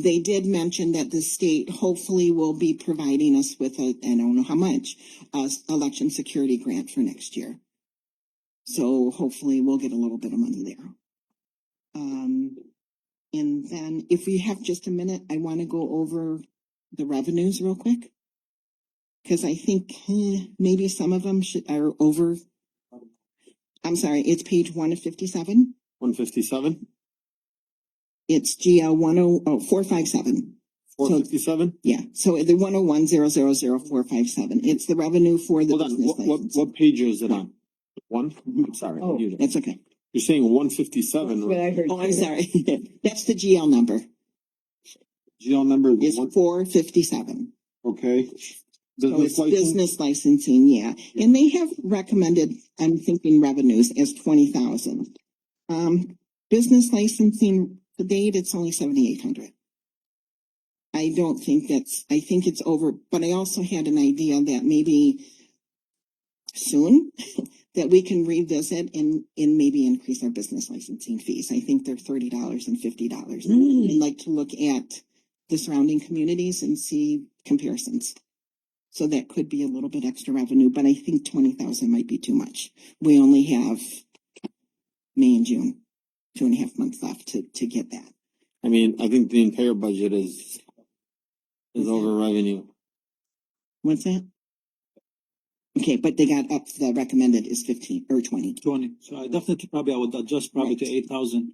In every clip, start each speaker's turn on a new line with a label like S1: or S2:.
S1: They did mention that the state hopefully will be providing us with a, I don't know how much, uh, election security grant for next year. So hopefully we'll get a little bit of money there. Um, and then if we have just a minute, I want to go over the revenues real quick. Cause I think eh, maybe some of them should, are over. I'm sorry, it's page one of fifty-seven.
S2: One fifty-seven,
S1: It's GL one oh, oh, four five seven.
S2: four fifty-seven?
S1: Yeah, so the one oh one zero zero zero four five seven, it's the revenue for the
S2: Hold on,
S1: business
S2: what, what,
S1: license.
S2: what page is it on? One? I'm sorry.
S3: Oh.
S2: You're
S1: That's okay.
S2: saying one fifty-seven,
S3: I heard.
S1: Oh, I'm sorry. That's the GL number.
S2: GL number, is
S1: It's
S2: one,
S1: four fifty-seven.
S2: okay.
S1: So
S2: Business
S1: it's
S2: license,
S1: business licensing, yeah. And they have recommended, I'm thinking revenues as twenty thousand. Um, business licensing, to date, it's only seventy-eight hundred. I don't think that's, I think it's over, but I also had an idea that maybe soon, that we can revisit and, and maybe increase our business licensing fees. I think they're thirty dollars and fifty dollars. I'd like to look at the surrounding communities and see comparisons. So that could be a little bit extra revenue, but I think twenty thousand might be too much. We only have May and June, two and a half months left to, to get that.
S2: I mean, I think the entire budget is, is over revenue.
S1: What's that? Okay, but they got up, the recommended is fifteen or twenty,
S4: Twenty, so I definitely probably I would adjust probably to
S1: Right.
S4: eight thousand.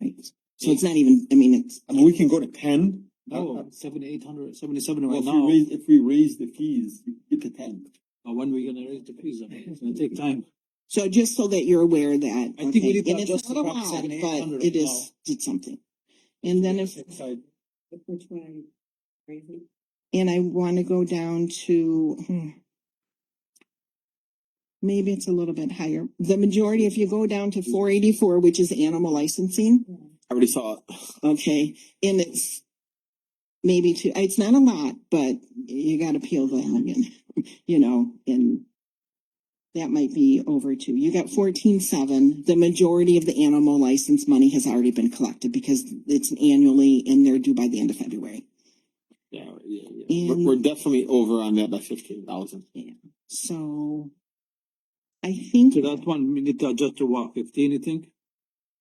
S1: right? So it's not even, I mean, it's,
S2: I mean, we can go to ten.
S4: No, seventy, eight Oh, hundred, seventy seven
S2: Well,
S4: right
S2: if
S4: now,
S2: we raise, if we raise the fees, we get to ten.
S4: but when we gonna raise the fees, I mean, it's gonna take time.
S1: so just so that you're aware that.
S4: I think we
S1: okay,
S4: need to
S1: and it's
S4: adjust
S1: a little
S4: the
S1: odd,
S4: prop 7,
S1: But
S4: 800
S1: it is,
S4: now.
S1: did something. And then if
S4: Sorry.
S3: Which one are you raising?
S1: And I wanna go down to. hmm, Maybe it's a little bit higher. The majority, if you go down to four eighty-four, which is animal licensing,
S2: I already saw it.
S1: okay, and it's. Maybe two, it's not a lot, but you gotta peel the onion, you know, and. That might be over two. You got fourteen seven. The majority of the animal license money has already been collected because it's annually and they're due by the end of February.
S2: Yeah, yeah, yeah.
S1: And-
S2: We're, we're definitely over on that by fifteen thousand.
S1: So. I think,
S4: So that one, we need to adjust to what, fifteen, you think?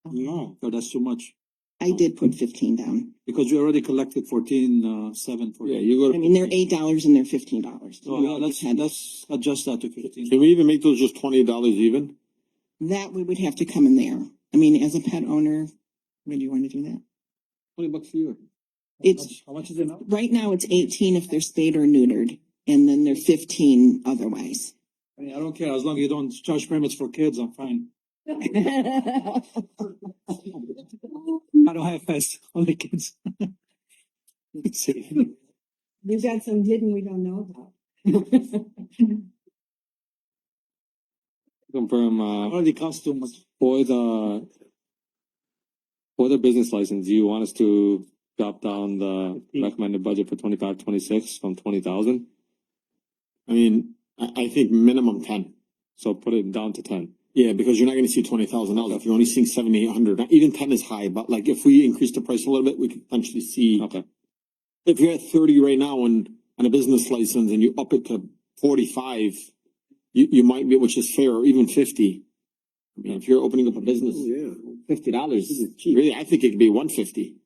S1: Uh-huh.
S2: No.
S4: So that's too much,
S1: I did put fifteen down.
S4: because we already collected fourteen, uh, seven for.
S2: Yeah, you go
S1: I
S2: to.
S1: mean, they're eight dollars and they're fifteen dollars.
S4: So Oh, yeah, let's, let's adjust that to fifteen.
S2: Can we even make those just twenty dollars even?
S1: That we would have to come in there. I mean, as a pet owner, would you wanna do that?
S4: Twenty bucks a year.
S1: It's,
S4: How much is it now?
S1: right now it's eighteen if they're spayed or neutered, and then they're fifteen otherwise.
S4: I mean, I don't care, as long as you don't charge permits for kids, I'm fine. I don't have pets, only kids.
S3: We've got some hidden we don't know about.
S5: Confirm, uh,
S4: Already cost too much.
S5: for the, for the business license, you want us to drop down the recommended budget for twenty-five, twenty-six from twenty thousand?
S2: I mean, I, I think minimum ten.
S5: So put it down to ten.
S2: Yeah, because you're not gonna see twenty thousand dollars if you're only seeing seventy, eight hundred. Even ten is high, but like if we increase the price a little bit, we could potentially see.
S5: Okay.
S2: If you're at thirty right now and on a business license and you up it to forty-five, you, you might be, which is fair, or even fifty. I mean, if you're opening up a business, fifty dollars, really, I think it could be one fifty.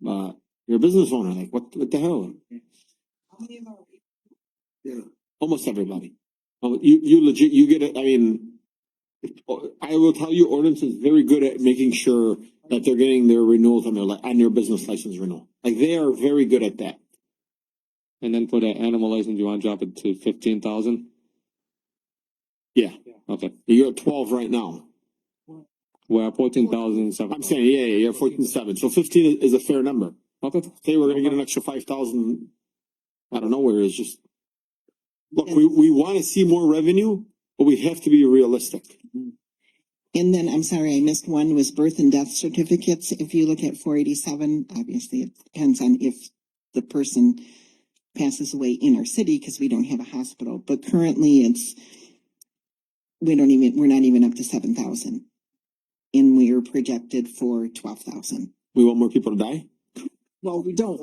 S2: But you're a business owner, like what, what the hell? Almost everybody. Oh, you, you legit, you get it, I mean. I will tell you, ordinance is very good at making sure that they're getting their renewals on their, li- on their business license renewal. Like they are very good at that.
S5: And then for the animal license, you wanna drop it to fifteen thousand?
S2: Yeah.
S5: Okay,
S2: You're at twelve right now.
S5: we're at fourteen thousand seven.
S2: I'm saying, yeah, yeah, you're fourteen seven, so fifteen is, is a fair number.
S5: Okay,
S2: Say we're gonna get an extra five thousand. I don't know where it's just. Look, we, we wanna see more revenue, but we have to be realistic.
S1: And then, I'm sorry, I missed one was birth and death certificates. If you look at four eighty-seven, obviously it depends on if the person passes away in our city because we don't have a hospital, but currently it's we don't even, we're not even up to seven thousand. And we are projected for twelve thousand.
S2: We want more people to die?
S1: Well, we don't